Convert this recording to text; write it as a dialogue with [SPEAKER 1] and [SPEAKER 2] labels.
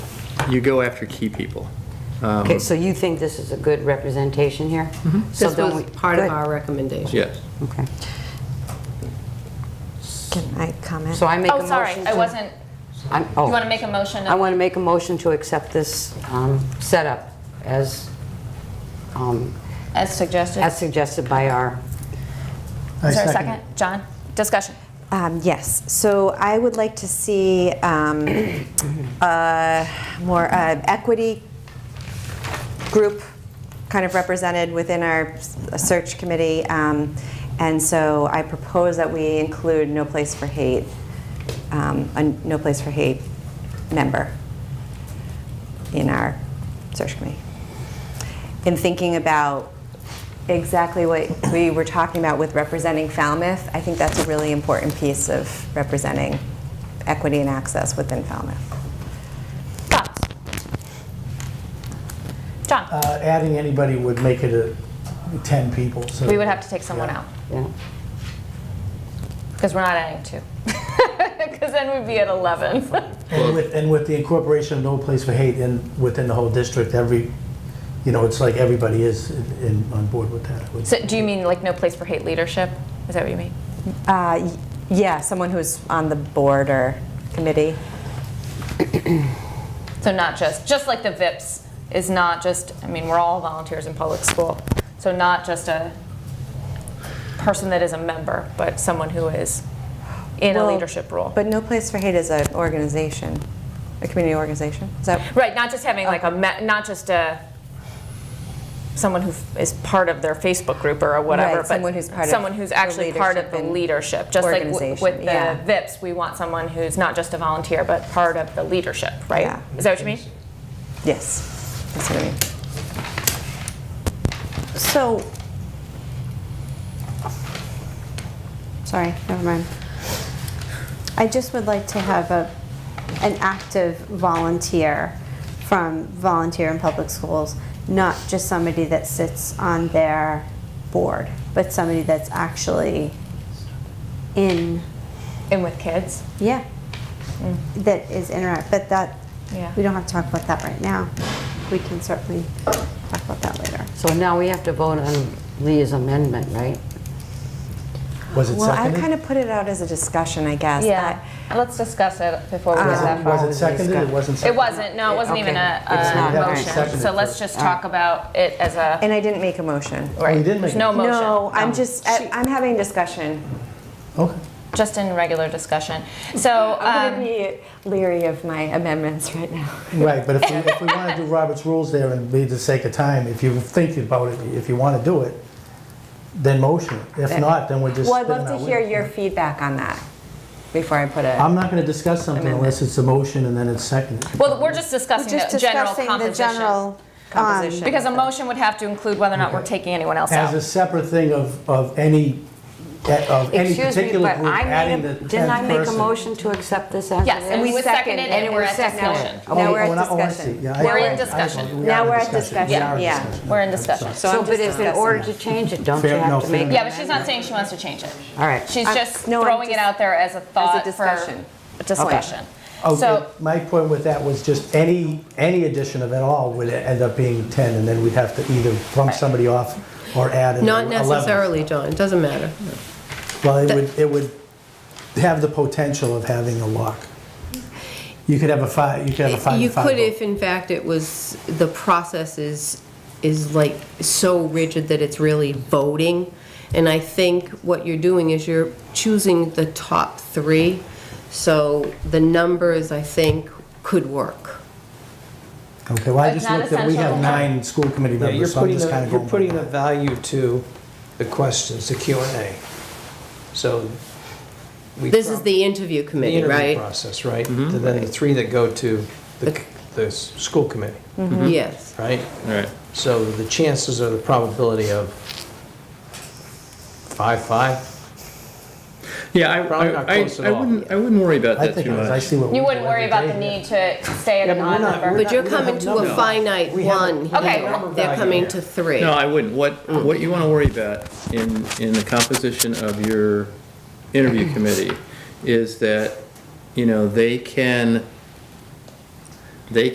[SPEAKER 1] you go after key people. Um,
[SPEAKER 2] Okay, so you think this is a good representation here?
[SPEAKER 3] Mm-hmm.
[SPEAKER 2] So
[SPEAKER 4] This
[SPEAKER 2] don't
[SPEAKER 4] was
[SPEAKER 2] we-
[SPEAKER 4] part of
[SPEAKER 2] good.
[SPEAKER 4] our recommendation.
[SPEAKER 1] Yes.
[SPEAKER 2] Okay.
[SPEAKER 5] Can I comment?
[SPEAKER 2] So I make a
[SPEAKER 6] Oh,
[SPEAKER 2] motion
[SPEAKER 6] sorry, I
[SPEAKER 2] to-
[SPEAKER 6] wasn't,
[SPEAKER 2] I'm- oh.
[SPEAKER 6] you want to make a motion?
[SPEAKER 2] I want to make a motion to accept this um, setup as, um,
[SPEAKER 6] As suggested?
[SPEAKER 2] as suggested by our,
[SPEAKER 6] Is there a second? John, discussion.
[SPEAKER 5] Um, Yes, so I would like to see um, a more uh, equity group kind of represented within our s- search committee. um, And so I propose that we include No Place for Hate, um, a No Place for Hate member in our search committee. In thinking about exactly what we were talking about with representing Falmouth, I think that's a really important piece of representing equity and access within Falmouth.
[SPEAKER 6] Thoughts? John,
[SPEAKER 3] Uh, Adding anybody would make it a 10 people, so.
[SPEAKER 6] we would have to take someone out,
[SPEAKER 2] yeah.
[SPEAKER 6] because we're not adding two. Because then we'd be at 11.
[SPEAKER 3] And with, and with the incorporation of No Place for Hate in, within the whole district, every, you know, it's like everybody is in- in, on board with that. I would-
[SPEAKER 6] So do you mean like no place for hate leadership? Is that what you mean?
[SPEAKER 5] Uh, y- yeah, someone who's on the board or committee.
[SPEAKER 6] So not just, just like the VIPS is not just, I mean, we're all volunteers in public school. So not just a person that is a member, but someone who is in a
[SPEAKER 5] Well,
[SPEAKER 6] leadership role.
[SPEAKER 5] But No Place for Hate is an organization, a community organization. Is that
[SPEAKER 6] Right, not just having like a, me- not just a, someone who f- is part of their Facebook group or
[SPEAKER 5] Right,
[SPEAKER 6] whatever, but
[SPEAKER 5] someone who's part of
[SPEAKER 6] someone who's
[SPEAKER 5] the
[SPEAKER 6] actually part of
[SPEAKER 5] leadership
[SPEAKER 6] the
[SPEAKER 5] and
[SPEAKER 6] leadership. Just like w- with
[SPEAKER 5] organization,
[SPEAKER 6] the
[SPEAKER 5] yeah.
[SPEAKER 6] VIPs, we want someone who's not just a volunteer, but part of the leadership, right?
[SPEAKER 5] Yeah.
[SPEAKER 6] Is that what you mean?
[SPEAKER 5] yes? That's what I mean.
[SPEAKER 2] So.
[SPEAKER 7] Sorry, never mind. I just would like to have a, an active volunteer from volunteer in public schools, not just somebody that sits on their board, but somebody that's actually in,
[SPEAKER 6] And with kids?
[SPEAKER 7] yeah, that is interact, but that,
[SPEAKER 6] Yeah.
[SPEAKER 7] we don't have to talk about that right now. We can certainly talk about that later.
[SPEAKER 2] So now we have to vote on Leah's amendment, right?
[SPEAKER 3] Was it
[SPEAKER 5] Well, I
[SPEAKER 3] seconded?
[SPEAKER 5] kind of put it out as a discussion, I guess.
[SPEAKER 6] Yeah, let's discuss it before we get
[SPEAKER 5] Uh-huh.
[SPEAKER 6] that far.
[SPEAKER 3] Was it seconded? It wasn't
[SPEAKER 6] It
[SPEAKER 3] seconded?
[SPEAKER 6] wasn't, no, it wasn't even a,
[SPEAKER 2] Okay. It's
[SPEAKER 6] a
[SPEAKER 2] not.
[SPEAKER 6] motion.
[SPEAKER 3] Seconded
[SPEAKER 6] So let's
[SPEAKER 3] first.
[SPEAKER 6] just
[SPEAKER 5] Uh.
[SPEAKER 6] talk about it as a,
[SPEAKER 5] And I didn't make a motion.
[SPEAKER 6] right,
[SPEAKER 3] Oh, you didn't
[SPEAKER 6] there's
[SPEAKER 3] make
[SPEAKER 6] no
[SPEAKER 3] it.
[SPEAKER 6] motion. Um,
[SPEAKER 5] No, I'm just, I, I'm having discussion.
[SPEAKER 3] Okay.
[SPEAKER 6] Just in regular discussion. So,
[SPEAKER 5] I'm
[SPEAKER 6] um,
[SPEAKER 5] going to be leery of my amendments right now.
[SPEAKER 3] Right, but if we, if we want to do Robert's rules there and be the sake of time, if you think about it, if you want to do it, then motion it. If not, then we're just.
[SPEAKER 5] Well, I'd
[SPEAKER 3] spinning
[SPEAKER 5] love
[SPEAKER 3] our
[SPEAKER 5] to hear
[SPEAKER 3] wheels.
[SPEAKER 5] your feedback on that before I put
[SPEAKER 3] I'm
[SPEAKER 5] a,
[SPEAKER 3] not going to discuss something unless it's a motion and then it's seconded.
[SPEAKER 6] Well, we're just discussing
[SPEAKER 7] Just
[SPEAKER 6] the general
[SPEAKER 7] discussing the
[SPEAKER 6] composition.
[SPEAKER 7] general. um,
[SPEAKER 5] Composition.
[SPEAKER 6] Because a motion would have to include whether or not we're taking anyone else
[SPEAKER 3] As a
[SPEAKER 6] out.
[SPEAKER 3] separate thing of, of any, of any
[SPEAKER 2] Excuse me,
[SPEAKER 3] particular
[SPEAKER 2] but
[SPEAKER 3] group
[SPEAKER 2] I made,
[SPEAKER 3] adding the
[SPEAKER 2] a-
[SPEAKER 3] 10th person.
[SPEAKER 2] didn't I make a motion to accept this as it is?
[SPEAKER 6] Yes, and we seconded it, and we're at discussion.
[SPEAKER 5] now we're
[SPEAKER 3] Oh,
[SPEAKER 5] at
[SPEAKER 3] oh, I see.
[SPEAKER 5] discussion.
[SPEAKER 3] Yeah, I-
[SPEAKER 6] We're in
[SPEAKER 3] I- I-
[SPEAKER 6] discussion.
[SPEAKER 3] we are
[SPEAKER 5] Now
[SPEAKER 3] in
[SPEAKER 5] we're at
[SPEAKER 3] We
[SPEAKER 5] discussion,
[SPEAKER 3] are in
[SPEAKER 5] yeah.
[SPEAKER 3] discussion.
[SPEAKER 6] We're in discussion.
[SPEAKER 3] I'm sorry.
[SPEAKER 2] So, but if in order to change it, don't you
[SPEAKER 3] Fair- no,
[SPEAKER 2] have to
[SPEAKER 3] fair
[SPEAKER 2] make?
[SPEAKER 3] enough.
[SPEAKER 6] Yeah, but she's not saying she wants to change it.
[SPEAKER 2] All right.
[SPEAKER 6] She's
[SPEAKER 5] I'm-
[SPEAKER 6] just
[SPEAKER 5] no, I'm
[SPEAKER 6] throwing it
[SPEAKER 5] just-
[SPEAKER 6] out there as a thought for
[SPEAKER 5] discussion.
[SPEAKER 6] a discussion.
[SPEAKER 3] Oh,
[SPEAKER 6] So,
[SPEAKER 3] but My point with that was just any, any addition of it all would end up being 10, and then we'd have to either bump somebody off or add an 11.
[SPEAKER 4] Not necessarily, John, it doesn't matter.
[SPEAKER 3] Well, it would, it would have the potential of having a lock. You could have a five, you could have a five.
[SPEAKER 4] You
[SPEAKER 3] five
[SPEAKER 4] could
[SPEAKER 3] vote.
[SPEAKER 4] if in fact it was, the process is, is like so rigid that it's really voting. And I think what you're doing is you're choosing the top three. So the numbers, I think, could work.
[SPEAKER 3] Okay, well, I
[SPEAKER 6] It's
[SPEAKER 3] just
[SPEAKER 6] not
[SPEAKER 3] looked at, we
[SPEAKER 6] essential.
[SPEAKER 3] have nine school committee
[SPEAKER 8] Yeah, you're
[SPEAKER 3] members, so I'm
[SPEAKER 8] putting,
[SPEAKER 3] just kind
[SPEAKER 8] a-
[SPEAKER 3] of
[SPEAKER 8] you're
[SPEAKER 3] going.
[SPEAKER 8] putting
[SPEAKER 3] by
[SPEAKER 8] a
[SPEAKER 3] that.
[SPEAKER 8] value to the questions, the Q and A. So we.
[SPEAKER 4] This is
[SPEAKER 8] prob-
[SPEAKER 4] the interview
[SPEAKER 8] the
[SPEAKER 4] committee,
[SPEAKER 8] interview
[SPEAKER 4] right? Mm-hmm.
[SPEAKER 8] Process, right? And then the three that go to the,
[SPEAKER 4] The-
[SPEAKER 8] the s- school committee,
[SPEAKER 2] Mm-hmm.
[SPEAKER 4] Yes.
[SPEAKER 8] right?
[SPEAKER 1] All right.
[SPEAKER 8] So the chances or the probability of five, five?
[SPEAKER 1] Yeah, I,
[SPEAKER 8] Probably not
[SPEAKER 1] I, I
[SPEAKER 8] close at
[SPEAKER 1] I
[SPEAKER 8] all.
[SPEAKER 1] wouldn't, I wouldn't worry about
[SPEAKER 3] I
[SPEAKER 1] that
[SPEAKER 3] think,
[SPEAKER 1] too
[SPEAKER 3] I
[SPEAKER 1] much.
[SPEAKER 3] see what.
[SPEAKER 6] you
[SPEAKER 3] we
[SPEAKER 6] wouldn't
[SPEAKER 3] do
[SPEAKER 6] worry about
[SPEAKER 3] every
[SPEAKER 6] the
[SPEAKER 3] day.
[SPEAKER 6] need to stay at
[SPEAKER 8] Yeah,
[SPEAKER 6] a
[SPEAKER 8] but we're not-
[SPEAKER 6] non-member.
[SPEAKER 8] we're
[SPEAKER 4] But you're
[SPEAKER 8] We don't
[SPEAKER 4] coming
[SPEAKER 8] have
[SPEAKER 4] to a
[SPEAKER 8] numbers.
[SPEAKER 4] finite
[SPEAKER 8] We have-
[SPEAKER 4] one
[SPEAKER 6] Okay,
[SPEAKER 4] here.
[SPEAKER 6] well-
[SPEAKER 4] They're coming to three.
[SPEAKER 1] No, I wouldn't. What,
[SPEAKER 8] Hmm.
[SPEAKER 1] what you want to worry about in, in the composition of your interview committee is that, you know, they can